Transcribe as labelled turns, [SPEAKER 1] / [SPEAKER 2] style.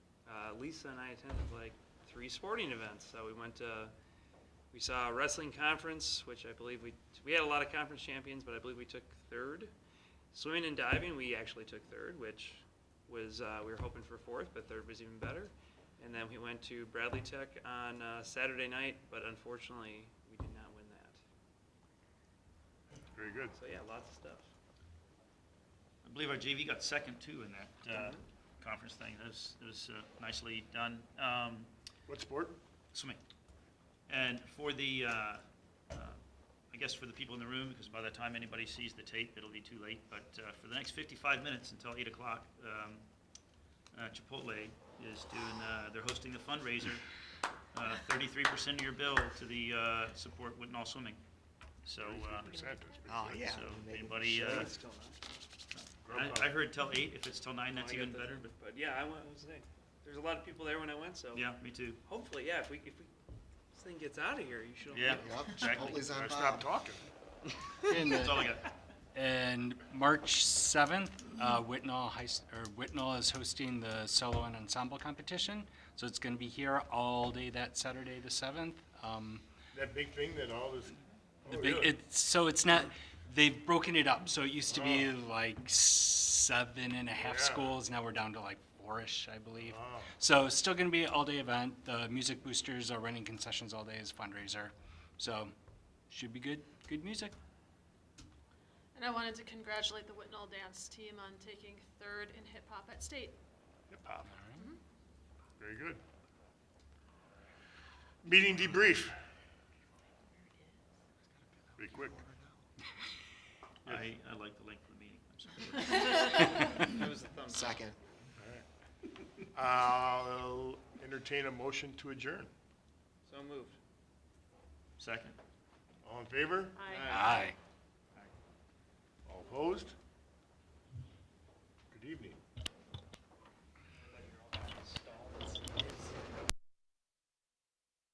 [SPEAKER 1] Uh, Lisa and I attended like three sporting events. So we went to, we saw a wrestling conference, which I believe we, we had a lot of conference champions, but I believe we took third. Swimming and diving, we actually took third, which was, uh, we were hoping for fourth, but third was even better. And then we went to Bradley Tech on uh, Saturday night, but unfortunately, we did not win that.
[SPEAKER 2] Very good.
[SPEAKER 1] So yeah, lots of stuff.
[SPEAKER 3] I believe our JV got second too in that uh, conference thing. That was, that was uh, nicely done. Um,
[SPEAKER 2] What sport?
[SPEAKER 3] Swimming. And for the, uh, uh, I guess for the people in the room, because by the time anybody sees the tape, it'll be too late, but uh, for the next 55 minutes until 8 o'clock, um, uh, Chipotle is doing, uh, they're hosting the fundraiser, uh, 33% of your bill to the uh, support Whitnall Swimming. So uh,
[SPEAKER 2] 33%, that's pretty
[SPEAKER 4] Oh,
[SPEAKER 2] good.
[SPEAKER 4] yeah.
[SPEAKER 3] So,
[SPEAKER 4] Maybe
[SPEAKER 3] anybody,
[SPEAKER 4] we
[SPEAKER 3] uh,
[SPEAKER 4] should.
[SPEAKER 1] It's still not.
[SPEAKER 3] I I heard till 8, if it's till 9, that's
[SPEAKER 1] Oh, I got
[SPEAKER 3] even
[SPEAKER 1] the-
[SPEAKER 3] better, but
[SPEAKER 1] But yeah, I went, I was saying, there's a lot of people there when I went, so.
[SPEAKER 3] yeah, me too.
[SPEAKER 1] Hopefully, yeah, if we, if we, this thing gets out of here, you should.
[SPEAKER 3] Yeah,
[SPEAKER 4] Yep,
[SPEAKER 3] exactly.
[SPEAKER 4] Chipotle's on
[SPEAKER 2] Better
[SPEAKER 4] Bob.
[SPEAKER 2] Stop talking.
[SPEAKER 5] And,
[SPEAKER 3] That's all I
[SPEAKER 5] uh,
[SPEAKER 3] got.
[SPEAKER 5] and March 7th, uh, Whitnall High, S- or Whitnall is hosting the solo and ensemble competition. So it's going to be here all day that Saturday, the 7th. Um,
[SPEAKER 2] That big thing that all this,
[SPEAKER 5] the
[SPEAKER 2] oh,
[SPEAKER 5] big-
[SPEAKER 2] really?
[SPEAKER 5] it's- So it's not, they've broken it up. So it used to be
[SPEAKER 3] Oh.
[SPEAKER 5] like seven and a half
[SPEAKER 2] Yeah.
[SPEAKER 5] schools. Now we're down to like four-ish, I believe.
[SPEAKER 3] Uh-huh.
[SPEAKER 2] Wow.
[SPEAKER 5] So it's still going to be an all-day event. The music boosters are running concessions all day as fundraiser. So should be good, good music.
[SPEAKER 6] And I wanted to congratulate the Whitnall dance team on taking third in hip hop at state.
[SPEAKER 2] Hip-hop. Mm-hmm. Very good. Meeting debrief. Pretty quick.
[SPEAKER 3] I, I like the length of the meeting. I'm sorry.
[SPEAKER 1] It was a thumbs up.
[SPEAKER 4] Second.
[SPEAKER 2] I'll entertain a motion to adjourn.
[SPEAKER 1] So moved.
[SPEAKER 3] Second.
[SPEAKER 2] All in favor?
[SPEAKER 6] I
[SPEAKER 5] Aye.
[SPEAKER 2] All opposed?